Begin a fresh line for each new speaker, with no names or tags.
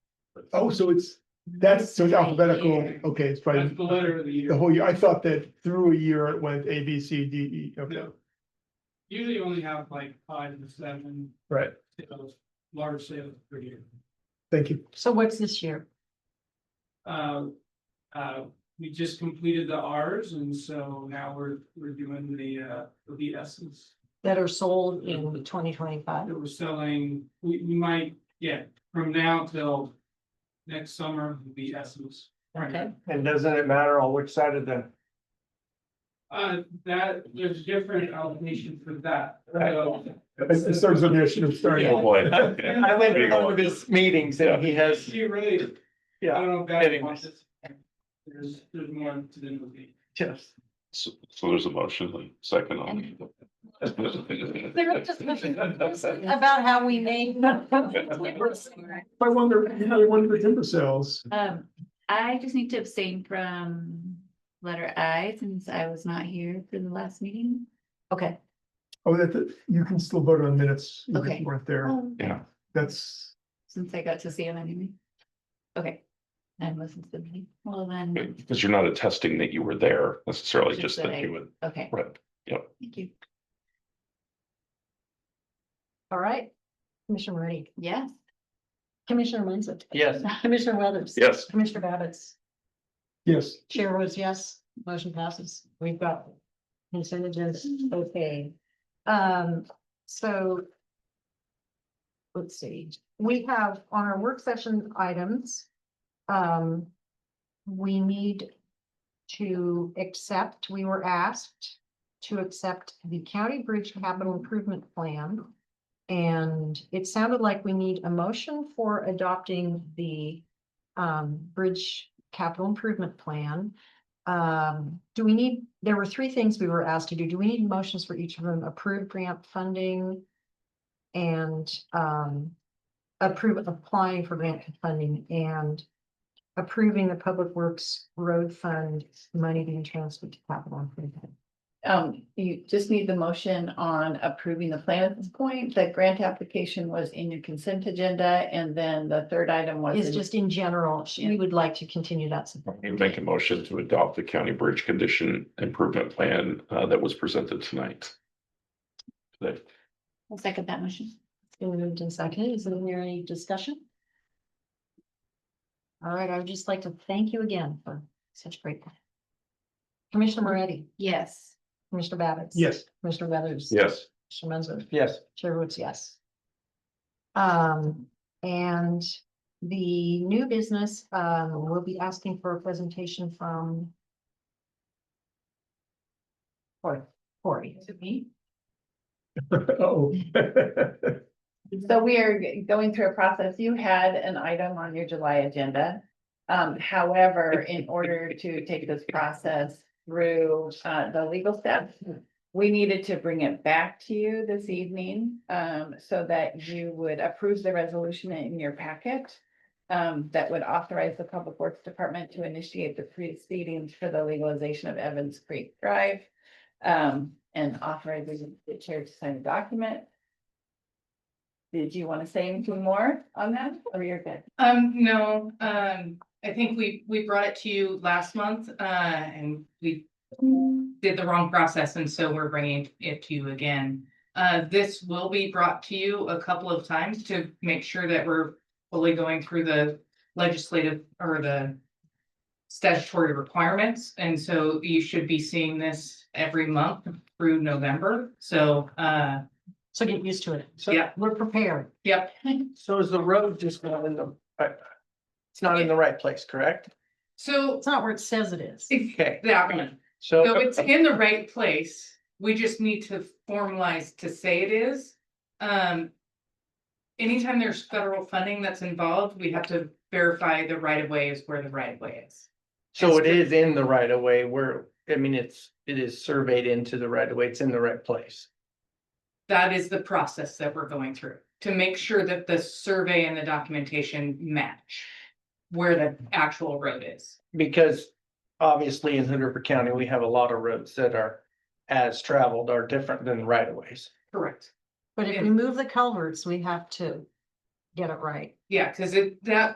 oh, so it's, that's, so it's alphabetical, okay, it's
That's
probably
the letter of the year.
the whole year, I thought that through a year it went A, B, C, D, E, okay,
No. Usually you only have like five to seven
right,
sales, large sales per year.
thank you.
So what's this year?
Uh, uh, we just completed the Rs and so now we're, we're doing the, uh, the S's.
That are sold in twenty twenty-five?
That we're selling, we, we might, yeah, from now till next summer, the S's.
Okay,
And doesn't it matter on which side of the,
Uh, that, there's different allocation for that. So,
It's it's sort of, I should have started.
Oh, boy.
I went to one of his meetings and he has,
You really, I
yeah,
don't know if guys
Anyway.
want this. There's, there's more to the movie.
just.
So so there's a motion, like, second on.
There was discussion About how we made.
I wonder, you know, I wonder if timber sales,
Um, I just need to abstain from letter I since I was not here for the last meeting.
Okay,
oh, that, you can still vote on minutes, you
Okay.
weren't
Oh.
there,
Um,
Yeah.
that's,
Since I got to see him anyway. Okay. And listen to the meeting. Well, then,
Because you're not attesting that you were there necessarily,
Just
just
that
that
I-
you would,
okay,
right,
thank you.
all right. Commissioner Moretti,
Yes.
Commissioner Munson,
Yes.
Commissioner Weathers.
yes.
Commissioner Babbitts,
yes.
Chair was yes, motion passes. We've got consent agenda, okay. Um, so let's see, we have on our work session items, um, we need to accept, we were asked to accept the County Bridge Capital Improvement Plan. And it sounded like we need a motion for adopting the um, Bridge Capital Improvement Plan. Um, do we need, there were three things we were asked to do. Do we need motions for each of them? Approve grant funding and um, approve applying for grant funding and approving the Public Works Road Fund money being transferred to capital improvement.
Um, you just need the motion on approving the plan at this point. The grant application was in your consent agenda and then the third item was.
It's
in-
just in general, sh- we would like to continue that support.
You make a motion to adopt the county bridge condition improvement plan uh that was presented tonight. That,
I'll second that motion.
Been moved and seconded. Is there any discussion? All right, I would just like to thank you again for such great. work. Commissioner Moretti,
Yes.
Commissioner Babbitts.
Yes.
Commissioner Weathers.
yes,
Commissioner Munson,
Yes.
Chair votes yes. Um, and the new business, um, will be asking for a presentation from Cory, Cory.
To me.
Oh.
So we are g- going through a process. You had an item on your July agenda. Um, however, in order to take this process through, uh, the legal steps, we needed to bring it back to you this evening, um, so that you would approve the resolution in your packet um, that would authorize the Public Works Department to initiate the proceedings for the legalization of Evans Creek Drive um, and authorizing the chair to sign the document. Did you want to say anything more on that, or you're good?
Um, no, um, I think we, we brought it to you last month, uh, and we did the wrong process, and so we're bringing it to you again. Uh, this will be brought to you a couple of times to make sure that we're fully going through the legislative or the statutory requirements, and so you should be seeing this every month through November, so, uh,
So get used to it. So
Yeah.
We're prepared.
yep,
So is the road just not in the, I- it's not in the right place, correct?
so.
It's not where it says it is.
Okay,
Yeah. So
so,
it's in the right place, we just need to formalize to say it is. Um. Anytime there's federal funding that's involved, we have to verify the right of way is where the right of way is.
so it is in the right of way where, I mean, it's, it is surveyed into the right of way, it's in the right place.
That is the process that we're going through, to make sure that the survey and the documentation match. Where the actual road is.
Because obviously in Hood River County, we have a lot of roads that are as traveled are different than right of ways.
Correct.
But if we
Yeah.
move the culverts, we have to get it right.
Yeah, cause it, that